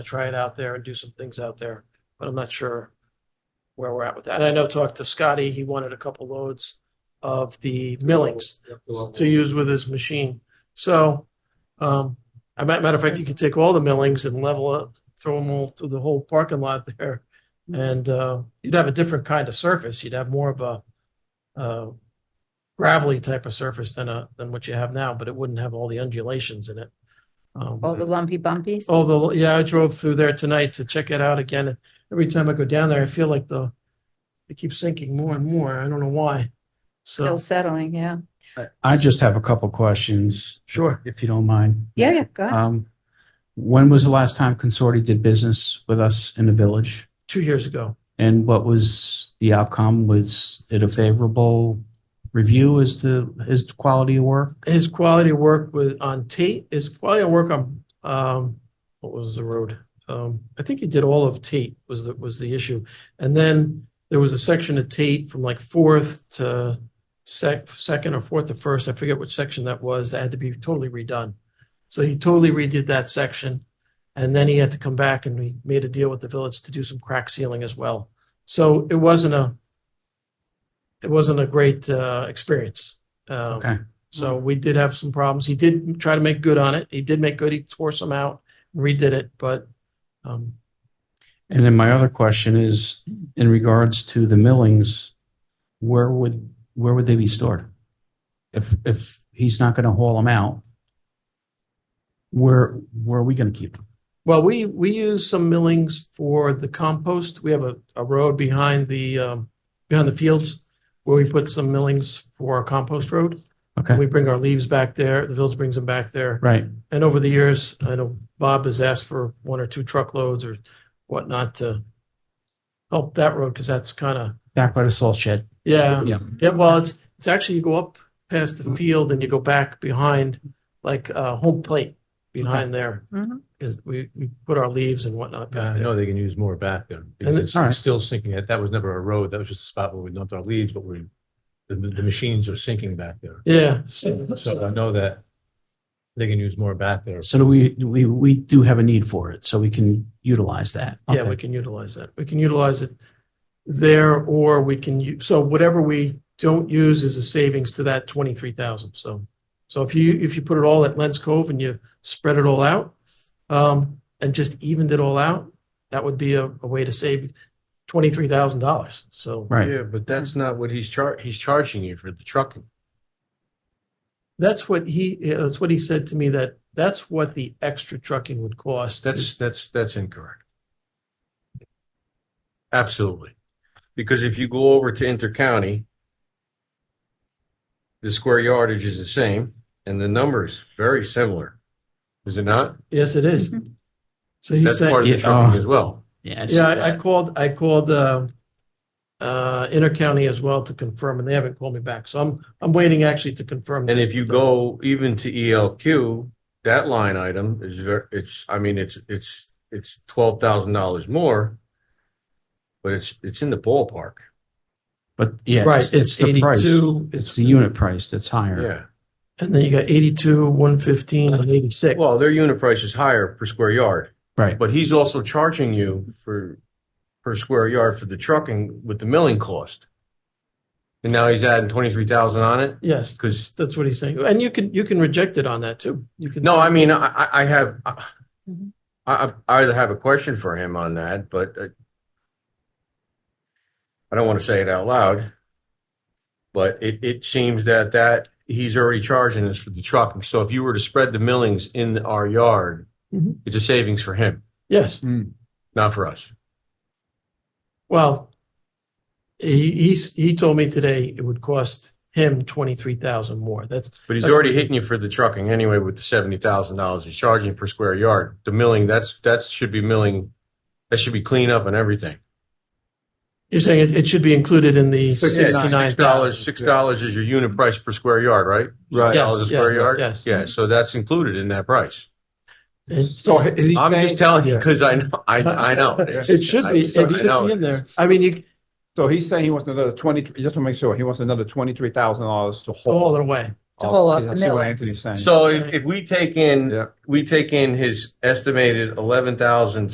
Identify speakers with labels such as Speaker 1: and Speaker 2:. Speaker 1: to try it out there and do some things out there, but I'm not sure where we're at with that. And I know talked to Scotty, he wanted a couple loads of the millings to use with his machine. So, um, I might, matter of fact, you could take all the millings and level up, throw them all through the whole parking lot there. And, uh, you'd have a different kind of surface. You'd have more of a, uh, gravelly type of surface than a, than what you have now, but it wouldn't have all the undulations in it. Um,
Speaker 2: All the lumpy bumpies?
Speaker 1: Although, yeah, I drove through there tonight to check it out again. Every time I go down there, I feel like the it keeps sinking more and more. I don't know why. So
Speaker 2: Still settling, yeah.
Speaker 3: I just have a couple questions,
Speaker 1: sure.
Speaker 3: if you don't mind.
Speaker 2: Yeah, yeah, go ahead.
Speaker 3: Um, when was the last time Consorti did business with us in the village?
Speaker 1: Two years ago.
Speaker 3: And what was the outcome? Was it a favorable review as to his quality of work?
Speaker 1: His quality of work was on Tate. His quality of work on um what was the road? Um I think he did all of Tate was the was the issue. And then there was a section of Tate from like fourth to sec second or fourth to first. I forget which section that was that had to be totally redone. So he totally redid that section. And then he had to come back and we made a deal with the village to do some crack sealing as well. So it wasn't a it wasn't a great uh, experience. Um,
Speaker 3: Okay.
Speaker 1: So
Speaker 3: Hmm.
Speaker 1: we did have some problems. He did try to make good on it. He did make good. He tore some out, redid it, but um,
Speaker 3: And then my other question is in regards to the millings, where would where would they be stored? If if he's not going to haul them out, where where are we going to keep them?
Speaker 1: well, we we use some millings for the compost. We have a, a road behind the um, behind the fields where we put some millings for our compost road.
Speaker 3: Okay.
Speaker 1: We bring our leaves back there. The village brings them back there.
Speaker 3: Right.
Speaker 1: And over the years, I know Bob has asked for one or two truckloads or whatnot to help that road because that's kind of
Speaker 3: Back by the salt shed.
Speaker 1: yeah
Speaker 3: Yeah.
Speaker 1: Um, Yeah, well, it's it's actually you go up past the field and you go back behind, like uh, home plate behind there
Speaker 2: Mhm.
Speaker 1: is we, we put our leaves and whatnot
Speaker 4: Yeah,
Speaker 5: Uh,
Speaker 1: back
Speaker 4: I
Speaker 1: there.
Speaker 4: know Uh, they can use more back there because
Speaker 1: And it-
Speaker 4: it's
Speaker 3: all right.
Speaker 4: it's still sinking. That- That was never a road. That was just a spot where we dumped our leaves, but we, the, the machines are sinking back there.
Speaker 1: Yeah, so,
Speaker 4: So I know that they can use more back there.
Speaker 3: So do we, we, we do have a need for it, so we can utilize that.
Speaker 1: yeah, we can utilize that. We can utilize it there, or we can use so whatever we don't use is a savings to that twenty three thousand. So, so if you if you put it all at Lens Cove and you spread it all out, um, and just evened it all out, that would be a, a way to save twenty three thousand dollars. So.
Speaker 3: Right,
Speaker 5: Yeah, but that's not what he's char, he's charging you for the trucking.
Speaker 1: That's what he, yeah, that's what he said to me, that that's what the extra trucking would cost.
Speaker 5: That's, that's, that's incorrect. Absolutely. Because if you go over to intercounty, the square yardage is the same and the numbers very similar. Is it not?
Speaker 1: Yes, it is. So he
Speaker 5: That's
Speaker 1: said,
Speaker 5: part of the
Speaker 3: Yeah,
Speaker 5: trucking
Speaker 3: uh,
Speaker 5: as well.
Speaker 3: yeah. I see
Speaker 1: yeah, I- I
Speaker 3: that.
Speaker 1: called, I called, uh, uh, Intercounty as well to confirm and they haven't called me back. So I'm, I'm waiting actually to confirm.
Speaker 5: And if you go even to ELQ, that line item is ver, it's, I mean, it's, it's, it's twelve thousand dollars more. But it's, it's in the ballpark.
Speaker 3: But yeah,
Speaker 1: Right,
Speaker 3: it's, it's the price.
Speaker 1: eighty-two,
Speaker 3: It's the unit price that's higher.
Speaker 5: Yeah.
Speaker 1: and then you got eighty-two, one fifteen and eighty-six.
Speaker 5: Well, their unit price is higher per square yard.
Speaker 3: Right,
Speaker 5: But he's also charging you for, per square yard for the trucking with the milling cost. And now he's adding twenty-three thousand on it,
Speaker 1: Yes,
Speaker 5: because,
Speaker 1: that's what he's saying. And you can, you can reject it on that too. You can.
Speaker 5: no, I mean, I, I, I have, I,
Speaker 2: Mhm.
Speaker 5: I I either have a question for him on that, but uh, I don't want to say it out loud. But it, it seems that that, he's already charging us for the trucking, so if you were to spread the millings in our yard,
Speaker 1: Mhm.
Speaker 5: it's a savings for him,
Speaker 1: Yes.
Speaker 5: not for us.
Speaker 1: Well, he, he's, he told me today it would cost him twenty-three thousand more. That's,
Speaker 5: But he's
Speaker 1: Like-
Speaker 5: already hitting you for the trucking anyway with the seventy thousand dollars he's charging per square yard. The milling, that's that should be milling, that should be cleanup and everything.
Speaker 1: You're saying it, it should be included in the
Speaker 5: Six
Speaker 1: sixty-nine
Speaker 5: dollars,
Speaker 1: dollars?
Speaker 5: six dollars is your unit price per square yard, right?
Speaker 1: Right.
Speaker 5: Six Dollars a
Speaker 1: Yes, yeah,
Speaker 5: square yard?
Speaker 1: yes.
Speaker 5: Yeah, so that's included in that price.
Speaker 1: So it
Speaker 5: I'm just telling you, because I know, I, I know.
Speaker 1: it should
Speaker 5: I-
Speaker 1: be, it
Speaker 5: so I
Speaker 1: should
Speaker 5: know.
Speaker 1: be in there.
Speaker 6: I mean, you, so he's saying he wants another twenty, just to make sure, he wants another twenty-three thousand dollars to
Speaker 1: All
Speaker 6: hold.
Speaker 1: Oh, the way.
Speaker 2: To hold up the
Speaker 6: I see what
Speaker 2: millings.
Speaker 6: Anthony's saying.
Speaker 5: So if, if we take in,
Speaker 6: Yeah.
Speaker 5: we take in his estimated eleven thousand